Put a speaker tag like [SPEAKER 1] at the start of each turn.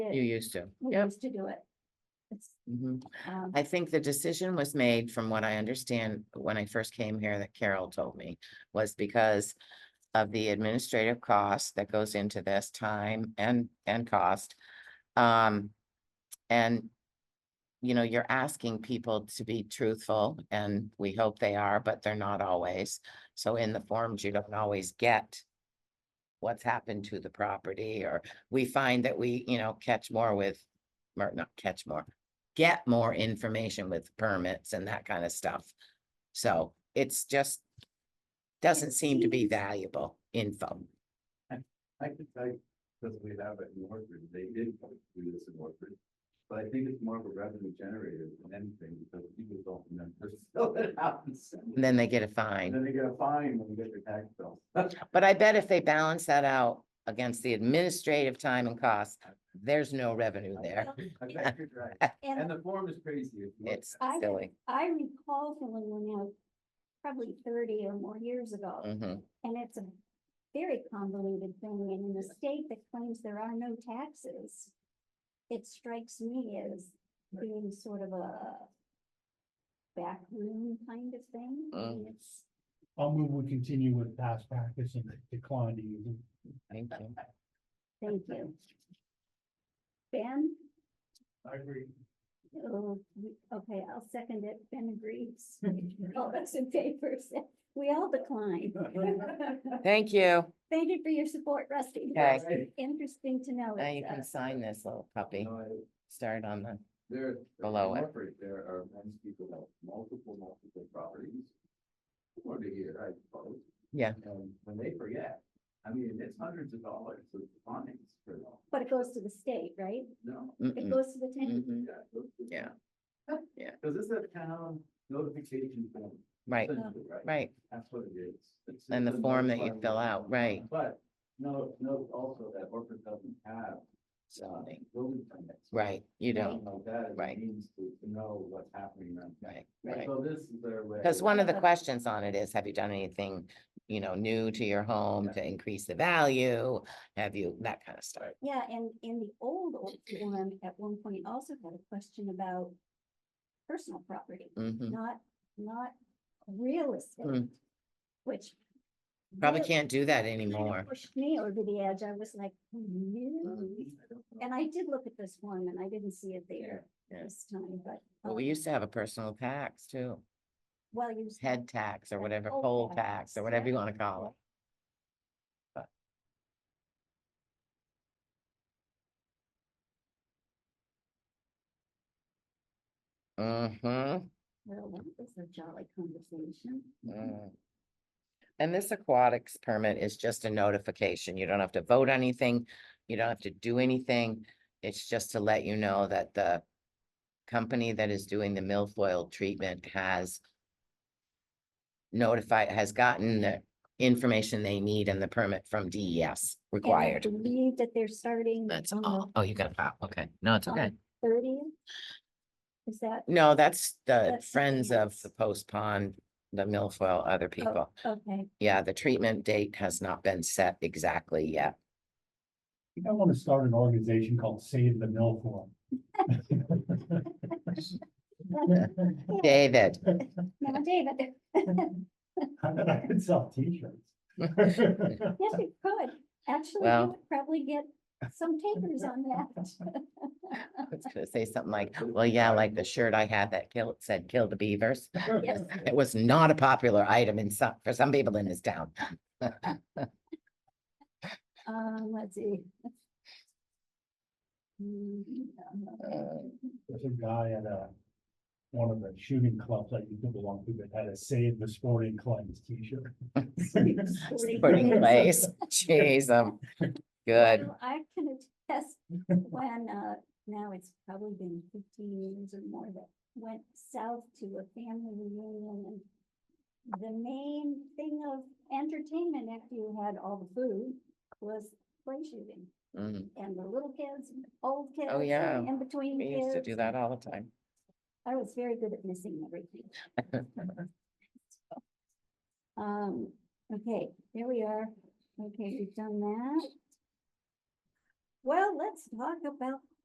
[SPEAKER 1] You used to,
[SPEAKER 2] we
[SPEAKER 1] yep.
[SPEAKER 2] used to do it. It's,
[SPEAKER 1] Mhm.
[SPEAKER 2] um,
[SPEAKER 1] I think the decision was made, from what I understand, when I first came here, that Carol told me, was because of the administrative cost that goes into this time and, and cost. Um, and, you know, you're asking people to be truthful, and we hope they are, but they're not always. So in the forms, you don't always get what's happened to the property, or we find that we, you know, catch more with, or not catch more, get more information with permits and that kind of stuff. So it's just, doesn't seem to be valuable info.
[SPEAKER 3] I could, I, because we have it in Orford, they did do this in Orford. But I think it's more of a revenue generator than anything, because people don't remember, so it happens.
[SPEAKER 1] And then they get a
[SPEAKER 3] And
[SPEAKER 1] fine.
[SPEAKER 3] then they get a fine when they get their tax bill.
[SPEAKER 1] But I bet if they balance that out against the administrative time and cost, there's no revenue there.
[SPEAKER 3] I bet you're right. And the form is crazy. if you look
[SPEAKER 1] It's
[SPEAKER 3] at it.
[SPEAKER 2] I-
[SPEAKER 1] silly.
[SPEAKER 2] I recall filling one out probably thirty or more years ago,
[SPEAKER 1] Mhm.
[SPEAKER 2] and it's a very convoluted thing, and in a state that claims there are no taxes, it strikes me as being sort of a backroom kind of thing.
[SPEAKER 1] Mm-hmm.
[SPEAKER 2] I mean, It's,
[SPEAKER 4] I'll move, we continue with past practice and decline to use. it.
[SPEAKER 1] Thank you.
[SPEAKER 2] thank you. Ben?
[SPEAKER 4] I agree.
[SPEAKER 2] Oh, we- okay, I'll second it. Ben agrees. All those in favor, say- we all decline.
[SPEAKER 1] Thank you.
[SPEAKER 2] Thank you for your support, Rusty.
[SPEAKER 1] Okay.
[SPEAKER 2] That's Interesting to know.
[SPEAKER 1] Now you
[SPEAKER 2] It's,
[SPEAKER 1] can
[SPEAKER 2] uh,
[SPEAKER 1] sign this little
[SPEAKER 3] You
[SPEAKER 1] puppy.
[SPEAKER 3] know, I-
[SPEAKER 1] Start on the,
[SPEAKER 3] There.
[SPEAKER 1] Below
[SPEAKER 3] in
[SPEAKER 1] it.
[SPEAKER 3] Orford, There are many people that have multiple, multiple properties. Or to here, I suppose.
[SPEAKER 1] Yeah.
[SPEAKER 3] And when they forget, I mean, it's hundreds of dollars of fines for them.
[SPEAKER 2] But it goes to the state, right?
[SPEAKER 3] No.
[SPEAKER 2] It
[SPEAKER 1] mm-mm,
[SPEAKER 2] goes to the town.
[SPEAKER 1] mhm.
[SPEAKER 3] yeah, those-
[SPEAKER 1] Yeah. Yeah.
[SPEAKER 3] Cause this is a town notification form.
[SPEAKER 1] right,
[SPEAKER 3] essentially,
[SPEAKER 1] right.
[SPEAKER 3] That's what it is. It's
[SPEAKER 1] And
[SPEAKER 3] just
[SPEAKER 1] the
[SPEAKER 3] a
[SPEAKER 1] form that you
[SPEAKER 3] notified
[SPEAKER 1] fill
[SPEAKER 3] form.
[SPEAKER 1] out, right.
[SPEAKER 3] But, no, no, also that Orford doesn't have. uh,
[SPEAKER 1] Zoning.
[SPEAKER 3] Building permits.
[SPEAKER 1] Right, you don't,
[SPEAKER 3] Something Like that, is
[SPEAKER 1] Right.
[SPEAKER 3] a means to to know what's happening around. town.
[SPEAKER 1] right,
[SPEAKER 3] And
[SPEAKER 1] right.
[SPEAKER 3] So this is their way.
[SPEAKER 1] Because one of the questions on it is, have you done anything, you know, new to your home
[SPEAKER 3] Yeah.
[SPEAKER 1] to increase the value? Have you, that kind of stuff.
[SPEAKER 2] Yeah, and in the old, old one, at one point also had a question about personal property,
[SPEAKER 1] Mhm.
[SPEAKER 2] not, not real estate,
[SPEAKER 1] Mm.
[SPEAKER 2] which.
[SPEAKER 1] Probably
[SPEAKER 2] really
[SPEAKER 1] can't do that
[SPEAKER 2] kinda
[SPEAKER 1] anymore.
[SPEAKER 2] Pushed me over the edge. I was like,
[SPEAKER 1] Mm-hmm.
[SPEAKER 2] really?
[SPEAKER 3] Um, I don't know.
[SPEAKER 2] And I did look at this one and I didn't see it there
[SPEAKER 1] Yeah.
[SPEAKER 2] this time, but.
[SPEAKER 1] Well, we
[SPEAKER 2] um,
[SPEAKER 1] used to have a personal tax too,
[SPEAKER 2] Well, you. said-
[SPEAKER 1] head tax or
[SPEAKER 2] Yeah,
[SPEAKER 1] whatever,
[SPEAKER 2] poll
[SPEAKER 1] poll
[SPEAKER 2] tax,
[SPEAKER 1] tax or whatever
[SPEAKER 2] yeah,
[SPEAKER 1] you want to call it. Mm-hmm.
[SPEAKER 2] Well, that was a jolly conversation.
[SPEAKER 1] Mm. And this aquatics permit is just a notification. You don't have to vote anything. You don't have to do anything. It's just to let you know that the company that is doing the milfoil treatment has notified, has gotten the information they need and the permit from DES
[SPEAKER 2] And I
[SPEAKER 1] required.
[SPEAKER 2] Believe that they're starting.
[SPEAKER 1] That's
[SPEAKER 2] on the
[SPEAKER 1] all. Oh, you got a pop. Okay. No, it's
[SPEAKER 2] on
[SPEAKER 1] okay.
[SPEAKER 2] the 30th? Is that,
[SPEAKER 1] No, that's Oh. the
[SPEAKER 2] That's something
[SPEAKER 1] friends of
[SPEAKER 2] else.
[SPEAKER 1] the post pond, the milfoil, other people.
[SPEAKER 2] okay,
[SPEAKER 1] Yeah, the treatment date has not been set exactly yet.
[SPEAKER 4] You might want to start an organization called Save the Mill Forum.
[SPEAKER 1] David,
[SPEAKER 2] now David,
[SPEAKER 4] I could sell t-shirts.
[SPEAKER 2] yes, you could, actually,
[SPEAKER 1] Well.
[SPEAKER 2] you would probably get some takers on that.
[SPEAKER 1] I was gonna say something like, well, yeah, like the shirt I had that killed, said kill the beavers.
[SPEAKER 2] Yes.
[SPEAKER 1] It was not a popular item in some, for some people in this town.
[SPEAKER 2] Um, let's see. Mm,
[SPEAKER 1] Uh,
[SPEAKER 2] um,
[SPEAKER 4] There's a guy at a, one of the shooting clubs that you could belong to that had a Save the Sporting Clubs t-shirt.
[SPEAKER 2] Sporting
[SPEAKER 1] Burning
[SPEAKER 2] goods.
[SPEAKER 1] place, jeez, um, good.
[SPEAKER 2] Well, I can attest when, uh, now it's probably been fifteen years or more that went south to a family reunion and the main thing of entertainment after you had all the food was play shooting
[SPEAKER 1] Mm,
[SPEAKER 2] and the little kids, and the old kids.
[SPEAKER 1] Oh, yeah.
[SPEAKER 2] And in between
[SPEAKER 1] We used to
[SPEAKER 2] kids.
[SPEAKER 1] do that all the time.
[SPEAKER 2] I was very good at missing everything. Um, okay, there we are. Okay, we've done that. Well, let's talk about